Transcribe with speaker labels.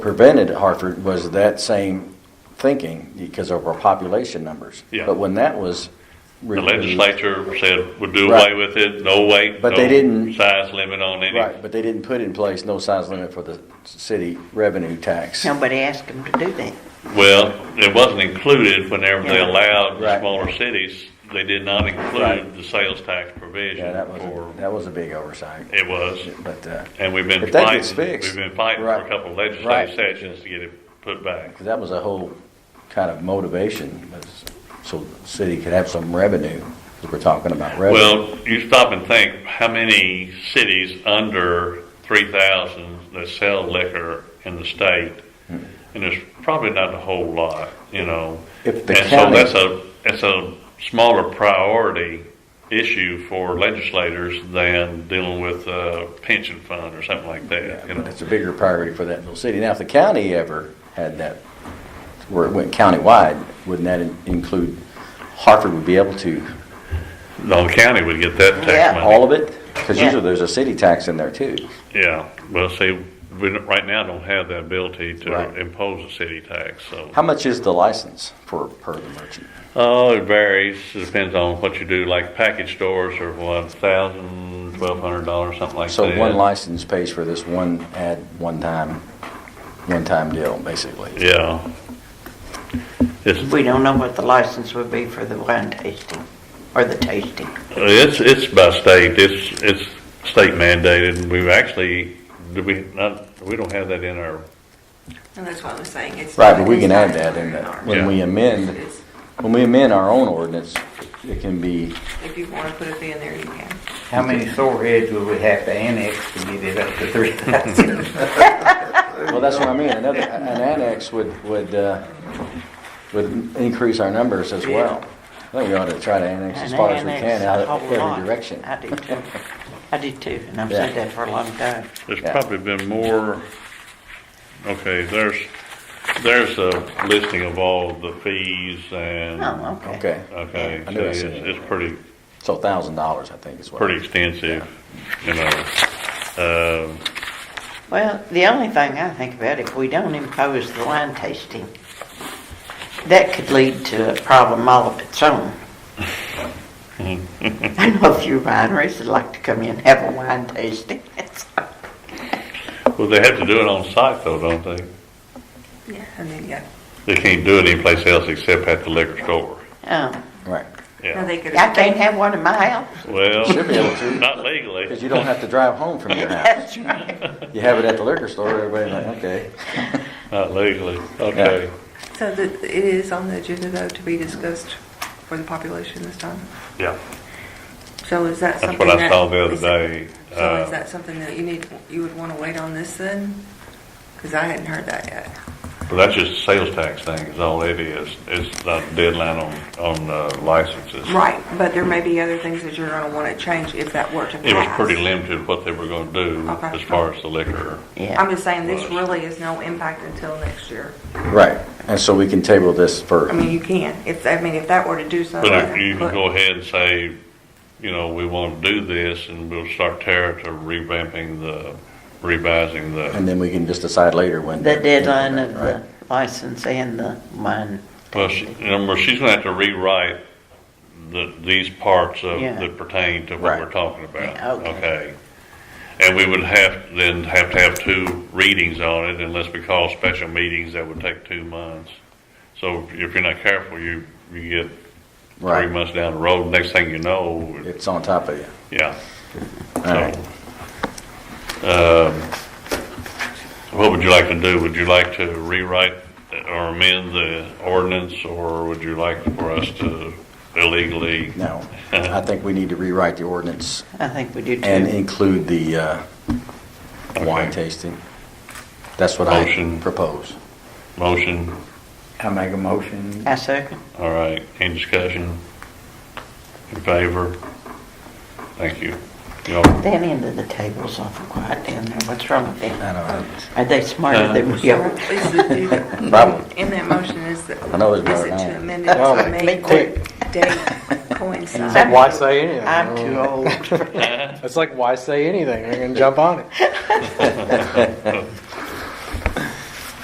Speaker 1: prevented Hartford was that same thinking because of our population numbers.
Speaker 2: Yeah.
Speaker 1: But when that was
Speaker 2: The
Speaker 1: removed,
Speaker 2: legislature said would do
Speaker 1: Right.
Speaker 2: away with it, no weight,
Speaker 1: But they
Speaker 2: no
Speaker 1: didn't-
Speaker 2: size limit on any.
Speaker 1: right, but they didn't put in place no size limit for the city revenue tax.
Speaker 3: Nobody asked them to do that.
Speaker 2: Well, it wasn't included whenever they
Speaker 3: Yeah.
Speaker 2: allowed the
Speaker 1: Right.
Speaker 2: smaller cities, they did not include
Speaker 1: Right.
Speaker 2: the sales tax
Speaker 1: Yeah,
Speaker 2: provision
Speaker 1: that was,
Speaker 2: for,
Speaker 1: a- that was a big oversight,
Speaker 2: it was.
Speaker 1: but, uh,
Speaker 2: And we've been
Speaker 1: If that gets
Speaker 2: fighting,
Speaker 1: fixed,
Speaker 2: we've been fighting for a
Speaker 1: right.
Speaker 2: couple of
Speaker 1: Right.
Speaker 2: legislative sessions to get it put back.
Speaker 1: 'cause that was a whole kind of motivation, was so the city could have some revenue, 'cause we're talking about revenue.
Speaker 2: Well, you stop and think, how many cities under three thousand that sell liquor in the state?
Speaker 1: Hmm.
Speaker 2: And there's probably not a whole lot, you know?
Speaker 1: If
Speaker 2: And
Speaker 1: the
Speaker 2: so
Speaker 1: county-
Speaker 2: that's a, that's a smaller priority issue for legislators than dealing with a pension fund or something like that, you
Speaker 1: But
Speaker 2: know?
Speaker 1: it's a bigger priority for that little city. Now, if the county ever had that, where it went countywide, wouldn't that in- include, Hartford would be able to
Speaker 2: The county would get that
Speaker 3: Yeah,
Speaker 2: tax money.
Speaker 1: All of it? Because
Speaker 3: Yeah.
Speaker 1: usually there's a city tax in there too.
Speaker 2: Yeah, well, see, we, don't- right now don't have the ability
Speaker 1: Right.
Speaker 2: to impose a city tax, so.
Speaker 1: How much is the license for, per the merchant?
Speaker 2: Oh, it varies. It depends on what you do. Like package stores are what, thousand, twelve hundred dollars, something like
Speaker 1: So
Speaker 2: that.
Speaker 1: one license pays for this one ad, one time, one time deal, basically.
Speaker 2: Yeah. It's
Speaker 3: We don't know what the license would be for the wine tasting or the tasting.
Speaker 2: it's it's by state. It's it's state mandated. We've actually do we not we don't have that in our
Speaker 4: And that's what I was saying, it's.
Speaker 1: Right, but we
Speaker 4: it's
Speaker 1: can
Speaker 4: not
Speaker 1: add that in
Speaker 4: an
Speaker 1: that,
Speaker 4: hour.
Speaker 1: when we amend,
Speaker 4: It's-
Speaker 1: when we amend our own ordinance, it can be,
Speaker 4: If you want to put a fee in there, you can.
Speaker 5: How many sore heads would we have to annex to get it up to three thousand?
Speaker 1: well, that's what I mean. Another, an annex would, would, uh, would increase our numbers as well. I think we ought to try to annex as
Speaker 3: And
Speaker 1: far as we
Speaker 3: annex
Speaker 1: can out
Speaker 3: a
Speaker 1: of
Speaker 3: whole lot.
Speaker 1: every direction.
Speaker 3: I do too. I do too, and I've
Speaker 1: Yeah.
Speaker 3: said that for a long time.
Speaker 2: There's
Speaker 1: Yeah.
Speaker 2: probably been more, okay, there's, there's a listing of all the fees and.
Speaker 3: Oh, okay.
Speaker 1: Okay,
Speaker 2: Okay,
Speaker 1: I
Speaker 2: so
Speaker 1: knew I
Speaker 2: it's,
Speaker 1: seen it.
Speaker 2: it's pretty,
Speaker 1: so thousand dollars, I think is what.
Speaker 2: pretty extensive, you know. Um,
Speaker 3: Well, the only thing I think about, if we don't impose the wine tasting, that could lead to a problem all of its own. I know a few wineries that like to come in and have a wine tasting.
Speaker 2: Well, they have to do it on site though, don't they?
Speaker 4: Yeah, and then, yeah.
Speaker 2: They can't do it anyplace else except at the liquor store.
Speaker 3: Oh,
Speaker 1: Right.
Speaker 4: No,
Speaker 2: Yeah.
Speaker 4: they could.
Speaker 3: I can't have one in my house.
Speaker 2: Well,
Speaker 1: Should be able to.
Speaker 2: not legally.
Speaker 1: Because you don't have to drive home from your house.
Speaker 3: That's right.
Speaker 1: You have it at the liquor store, everybody's like, okay.
Speaker 2: Not legally, okay.
Speaker 4: So that, it is on the agenda though to be discussed for the population this time?
Speaker 2: Yeah.
Speaker 4: So is that
Speaker 2: That's
Speaker 4: something
Speaker 2: what
Speaker 4: that?
Speaker 2: I saw the other
Speaker 4: is that-
Speaker 2: day.
Speaker 4: So
Speaker 2: Uh,
Speaker 4: is that something that you need, you would want to wait on this then? Because I hadn't heard that yet.
Speaker 2: Well, that's just a sales tax thing, is all it is. It's not a deadline on, on uh, licenses.
Speaker 4: Right, but there may be other things that you're going to want to change if that were to pass.
Speaker 2: It was pretty limited what they were gonna do
Speaker 4: Okay.
Speaker 2: as far as the liquor.
Speaker 4: I'm
Speaker 3: Yeah,
Speaker 4: just saying, this
Speaker 2: Was.
Speaker 4: really is no impact until next year.
Speaker 1: Right, and so we can table this
Speaker 4: I
Speaker 1: for,
Speaker 4: mean, you can, if, I mean, if that were to do something.
Speaker 2: But if you
Speaker 4: but-
Speaker 2: can go ahead and say, you know, we wanna do this and we'll start Tara to revamping the, revising the,
Speaker 1: and then we can just decide later when.
Speaker 3: the deadline of
Speaker 1: Right.
Speaker 3: the license and the wine.
Speaker 2: well, she, you know, well, she's gonna have to rewrite the, these parts of,
Speaker 3: Yeah.
Speaker 2: that pertain to what
Speaker 1: Right.
Speaker 2: we're talking about,
Speaker 3: Yeah, okay.
Speaker 2: okay? And we would have, then have to have two readings on it unless we call special meetings, that would take two months. So if you're not careful, you, you get three
Speaker 1: Right,
Speaker 2: months down the road, next thing you know, it-
Speaker 1: it's on top of you.
Speaker 2: yeah.
Speaker 1: All right,
Speaker 2: um, What would you like to do? Would you like to rewrite or amend the ordinance, or would you like for us to illegally?
Speaker 1: no, I think we need to rewrite the ordinance
Speaker 3: I think we do
Speaker 1: and
Speaker 3: too.
Speaker 1: include the uh, wine
Speaker 2: Okay.
Speaker 1: tasting. That's what I
Speaker 2: Motion.
Speaker 1: propose.
Speaker 2: Motion,
Speaker 5: I make a motion.
Speaker 3: I second.
Speaker 2: all right, any discussion? In favor? Thank you. Y'all-
Speaker 3: That end of the table's awful quiet down there. What's wrong with them?
Speaker 1: I know, Uh,
Speaker 3: Are they smarter than we are?
Speaker 4: Is it- is it-
Speaker 1: Probably.
Speaker 4: In that motion is, the-
Speaker 1: I know it's
Speaker 4: is
Speaker 1: better
Speaker 4: it
Speaker 1: than
Speaker 4: to
Speaker 1: that.
Speaker 4: amend it
Speaker 3: Oh,
Speaker 4: to make
Speaker 3: quick.
Speaker 4: the date coincide?
Speaker 3: Why
Speaker 6: say anything?
Speaker 3: I'm too old.
Speaker 6: It's like, why say anything? I'm going to jump on it.